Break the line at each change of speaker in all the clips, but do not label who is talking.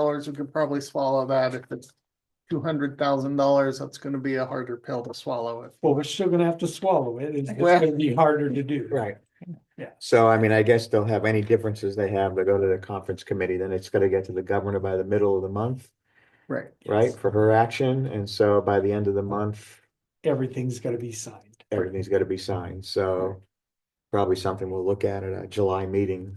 dollars, we could probably swallow that. If it's two hundred thousand dollars, that's gonna be a harder pill to swallow if
Well, we're still gonna have to swallow it. It's, it's
Well-
gonna be harder to do.
Right.
Yeah.
So I mean, I guess they'll have any differences they have, they go to the conference committee, then it's gotta get to the governor by the middle of the month,
Right.
right, for her action, and so by the end of the month,
Everything's gonna be signed.
everything's gotta be signed, so probably something we'll look at at a July meeting.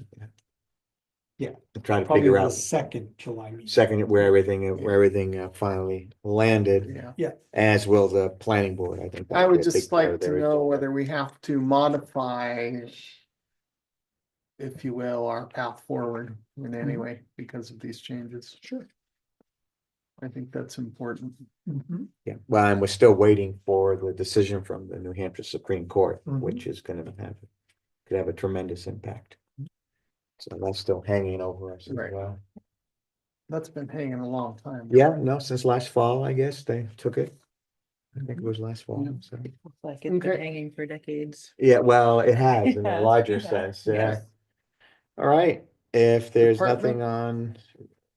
Yeah.
To Try to
Probably
figure
the
out
second July. meeting.
second where everything, where everything uh, finally landed,
Yeah,
as will the planning board, I think.
I
that'll be
would
a big
just
part
like
of
to
their-
know whether we have to modify. If you will, our path forward in any way because of these changes. Sure. I think that's important.
Yeah, well, and we're still waiting for the decision from the New Hampshire Supreme Court,
Mhm.
which is gonna have, could have a tremendous impact. So that's still hanging over us as
Right.
well.
That's been hanging a long time.
Yeah, no, since last fall, I guess, they took it. I think it was last fall,
Yeah.
so.
Like it's been
Okay.
hanging for decades.
Yeah, well, it has in a
Yeah,
larger
yeah,
sense, yeah.
yes.
All right, if there's
Department-
nothing on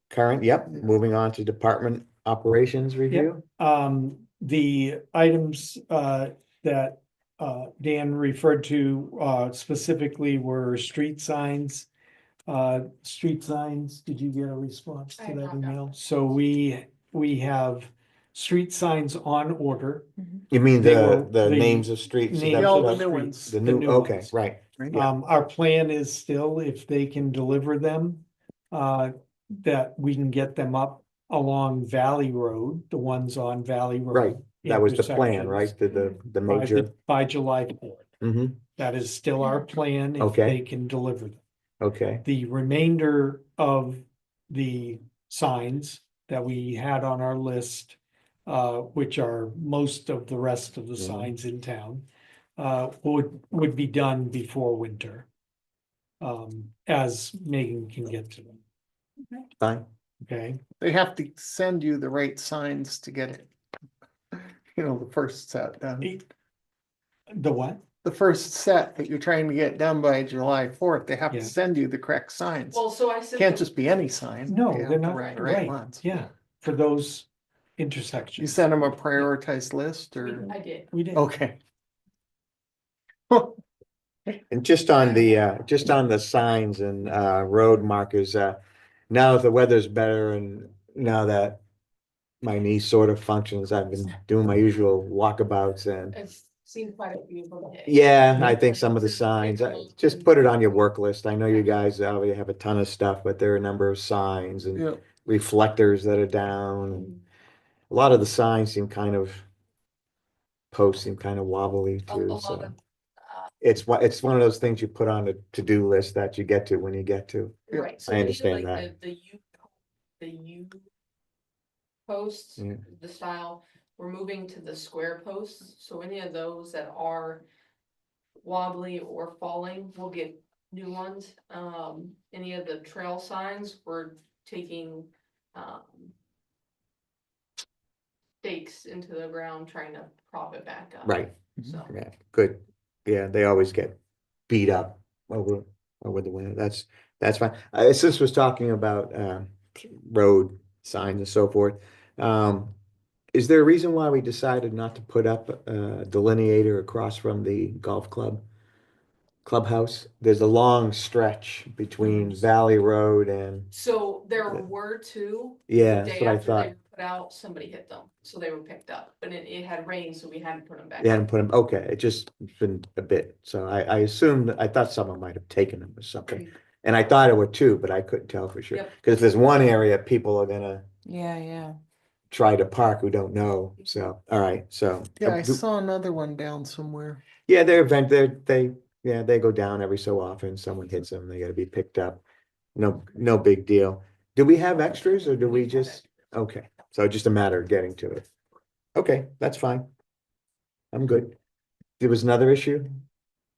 current, yep, moving on to department operations review.
Um, the items, uh, that, uh, Dan referred to, uh, specifically were street signs. Uh, street signs, did you get a response
I
to
have
that
not gotten
email? So we, we have street signs on order.
You mean
They
the,
were-
the
they-
names of streets? and
Names
that
all
of
stuff?
the new ones.
streets,
The
the
new, okay,
ones.
right. Yeah.
Um, our plan is still, if they can deliver them, uh, that we can get them up along Valley Road, the ones on Valley Road.
Right, That was the plan,
intersections
right? The, the, the
By,
major,
the- by July fourth.
mhm,
That is still our plan if
Okay.
they can deliver them.
okay,
The remainder of the signs that we had on our list, uh, which are most of the rest of the
Mm-hmm.
Mhm.
signs in town, uh, would, would be done before winter. Um, as Megan can get to them,
fine.
okay?
They have to send you the right signs to get it. You know, the first set done,
The what?
the first set that you're trying to get done by July fourth, they have to
Yeah.
send you the correct signs.
Well, so I sent.
Can't
them-
just be any sign.
No,
They have
they're
the
not,
Right, right
right,
ones.
yeah, for those
You
intersections.
sent them a prioritized list or,
I did.
We did,
okay.
And just on the, uh, just on the signs and, uh, road markers, uh, now that the weather's better and now that my knee sort of functions, I've been doing my usual walkabouts and,
I've seen quite a few of them.
yeah, I think some of the signs, uh, just put it on your work list. I know you guys already have a ton of stuff, but there are a number of signs and
Yeah,
reflectors that are down. and A lot of the signs seem kind of, posts seem kind of wobbly
A a
too,
lot
so.
of, uh,
It's one, it's one of those things you put on a to-do list that you get to when you get to.
Yeah,
right,
I
so these are
understand
like
that.
The the U, the U posts,
Yeah.
the style, we're moving to the square posts, so any of those that are wobbly or falling, we'll get new ones. Um, any of the trail signs, we're taking, um, stakes into the ground, trying to prop it back up.
Right,
So.
yeah, good. Yeah, they always get beat up over, over the winter. That's, that's fine. Uh, Sis was talking about, uh, road signs and so forth. Um, is there a reason why we decided not to put up a delineator across from the golf club? Clubhouse? There's a long stretch between Valley Road and,
So there
Yeah.
were two,
yeah, that's
day
what I
after they
thought.
were put out, somebody hit them, so they were picked up, but it, it had rained, so we hadn't put them back.
They hadn't put them, okay, it just been a bit, so I, I assumed, I thought someone might have taken them or something.
Mm.
And I thought it were two, but I couldn't tell for sure,
Yep.
because if there's one area people are gonna
Yeah, yeah.
try to park who don't know, so, all right, so.
Yeah, I saw another one down somewhere.
Yeah, they're event, they're, they, yeah, they go down every so often, someone hits them, they gotta be picked up. No, no big deal. Do we have extras or do we
have
just, okay, so just a matter of getting to it. Okay, that's fine. I'm good. There was another issue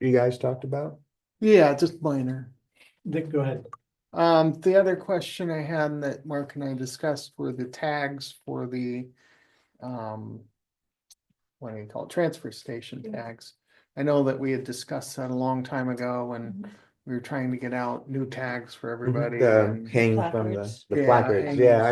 you guys talked about?
Yeah, just minor.
Dick, go ahead.
Um, the other question I had that Mark and I discussed were the tags for the, um, what do you call it, transfer station
Mhm.
tags. I know that we had discussed that a long time ago when we were trying to get out new tags for everybody.
The
and-
hanging from the,
Placards.
the
Yeah,
placards,
and-
yeah,